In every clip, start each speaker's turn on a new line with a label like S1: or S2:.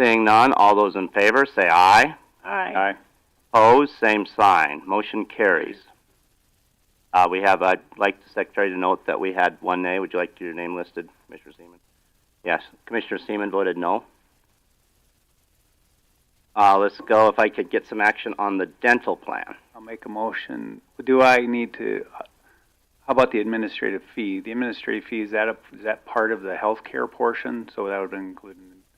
S1: Seeing none, all those in favor say aye.
S2: Aye.
S1: Opposed, same sign. Motion carries. Uh, we have, I'd like the secretary to note that we had one nay. Would you like your name listed, Commissioner Seaman? Yes, Commissioner Seaman voted no. Uh, let's go, if I could get some action on the dental plan.
S2: I'll make a motion. Do I need to, uh, how about the administrative fee? The administrative fee, is that a, is that part of the healthcare portion? So that would include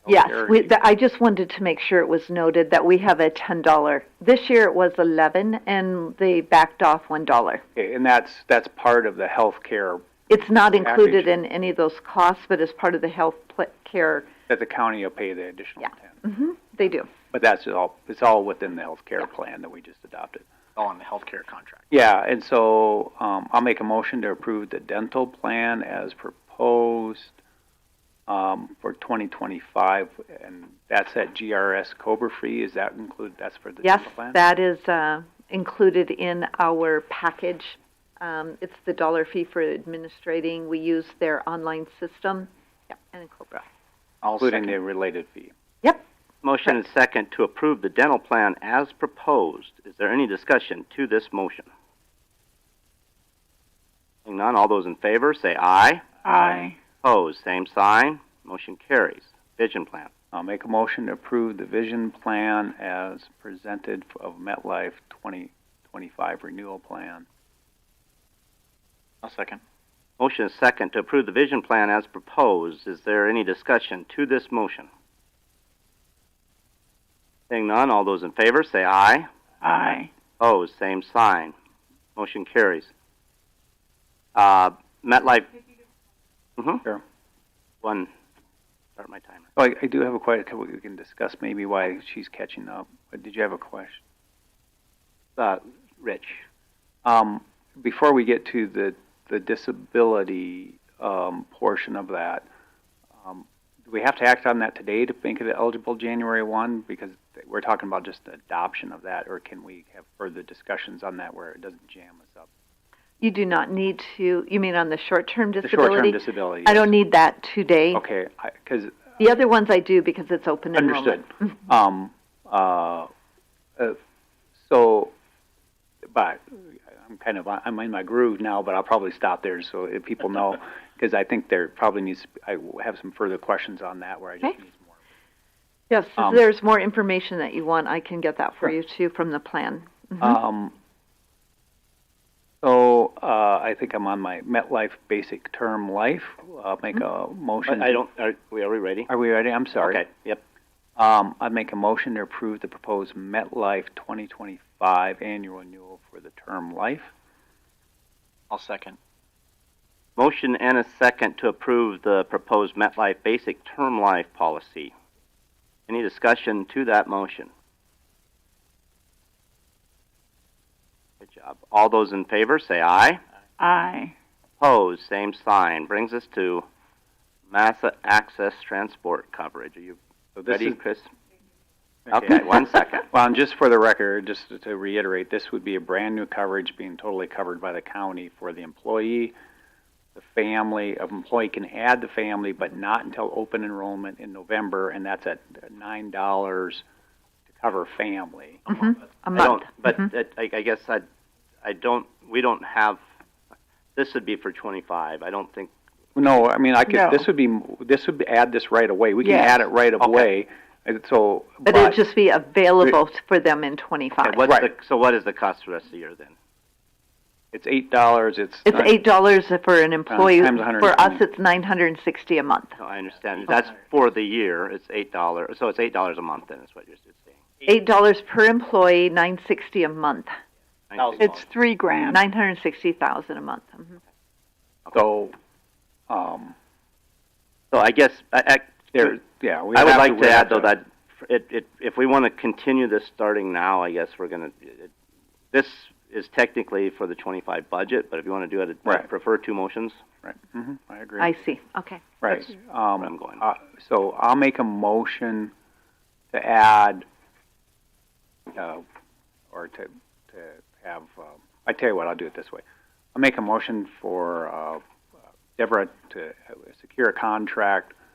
S3: Yes,
S2: healthcare?
S3: we, th- I just wanted to make sure it was noted that we have a ten dollar. This year it was eleven, and they backed off one dollar.
S2: Okay, And that's, that's part of the healthcare
S3: It's not included
S2: Package.
S3: in any of those costs, but as part of the health pl- care,
S2: that the county will pay the additional
S3: Yeah.
S2: ten.
S3: hmm they do.
S2: But that's all, it's all within the healthcare plan that we just adopted.
S4: all in Oh, the healthcare contract.
S2: Yeah, and so, um, I'll make a motion to approve the dental plan as proposed, um, for twenty twenty-five, and that's at GRS Cobra Free, is that include, that's for the
S3: Yes,
S2: dental plan?
S3: that is uh, included in our package. Um, it's the dollar fee for administrating. We use their online system and Cobra.
S4: I'll
S2: Including the
S4: second.
S2: related fee.
S1: Motion and second to approve the dental plan as proposed. Is there any discussion to this motion? Seeing none, all those in favor say aye.
S2: Aye.
S1: Opposed, same sign. Motion carries. Vision plan.
S2: I'll make a motion to approve the vision plan as presented of MetLife twenty twenty-five renewal plan.
S4: I'll second.
S1: Motion is second to approve the vision plan as proposed. Is there any discussion to this motion? Seeing none, all those in favor say aye.
S4: Aye.
S1: Opposed, same sign. Motion carries. Uh, MetLife. Mm-hmm.
S2: Sure.
S1: One. Start my timer.
S2: Oh, I, I do have a quite a couple, we can discuss maybe why she's catching up, but did you have a question?
S1: Uh, Rich.
S2: Um, before we get to the, the disability, um, portion of that, um, do we have to act on that today to make it eligible January one? Because we're talking about just the adoption of that, or can we have further discussions on that where it doesn't jam us up?
S3: You do not need to. You mean on the short-term
S2: The
S3: disability?
S2: short-term disability.
S3: I don't need that today.
S2: Okay, because
S3: The other ones I do because it's open enrollment. Mm-hmm.
S2: understood. Um, uh, uh, so, but I'm kind of I'm in my groove now, but I'll probably stop there so if people know because I think there probably needs I have some further questions on that where I just
S3: Okay.
S2: need some more.
S3: Yes, if
S2: Um,
S3: there's more information that you want, I can get that for
S2: Sure.
S3: you too from the plan. Mhm.
S1: Uh,
S2: Um, so uh, I think I'm on my MetLife basic term life. I'll make
S3: Mm-hmm.
S2: a motion.
S1: I, I don't. Are, we- are we ready?
S2: Are we ready? I'm sorry.
S1: Okay. Yep.
S2: Um, I'd make a motion to approve the proposed MetLife 2025 annual renewal for the term life.
S4: I'll second.
S1: Motion and a second to approve the proposed MetLife basic term life policy. Any discussion to that motion? Good job. All those in favor say aye.
S4: Aye.
S1: Opposed, same sign. Brings us to Massa Access Transport coverage. Are you
S2: So this
S1: ready,
S2: is,
S1: Chris?
S2: okay.
S1: Okay, one second.
S2: Well, and just for the record, just to- to reiterate, this would be a brand new coverage being totally covered by the county for the employee, the family. An employee can add the family, but not until open enrollment in November, and that's at $9 to cover family.
S3: Mhm. A
S1: I don't,
S3: month.
S1: but
S3: Mhm.
S1: it, I, I guess I, I don't, we don't have, this would be for twenty-five. I don't think,
S2: No, I mean, I could,
S4: No.
S2: this would be, this would be, add this right away. We can
S4: Yes.
S2: add it right
S1: Okay.
S2: away. And so,
S3: But it'll just be available for them in
S1: okay,
S3: twenty-five.
S1: what's the,
S2: Right.
S1: so what is the cost for the rest of the year then?
S2: it's eight dollars, it's.
S3: It's
S2: not-
S3: eight dollars for an employee.
S2: times
S3: For us,
S2: 120.
S3: it's nine hundred and sixty a month.
S1: No, Oh, I understand. That's for the year. It's eight dollars, so it's eight dollars a month then, is what you're saying.
S3: Eight dollars per employee, nine sixty a month.
S1: Thank you.
S5: It's three grand.
S3: Nine hundred and sixty thousand a month. Mhm.
S2: So, um,
S1: So I guess, I, I,
S2: there, yeah, we
S1: I would
S2: have
S1: like to
S2: we have
S1: add though that it, it, if we want to continue this starting now, I guess we're gonna, it, this is technically for the twenty-five budget, but if you want to do it, I
S2: Right.
S1: prefer two motions.
S2: Right, mhm, I agree.
S3: I see, okay.
S2: Right,
S1: where I'm
S2: um,
S1: going.
S2: uh, so I'll make a motion to add, uh, or to, to have, um, I tell you what, I'll do it this way. I'll make a motion for, uh, Deborah to uh, secure a contract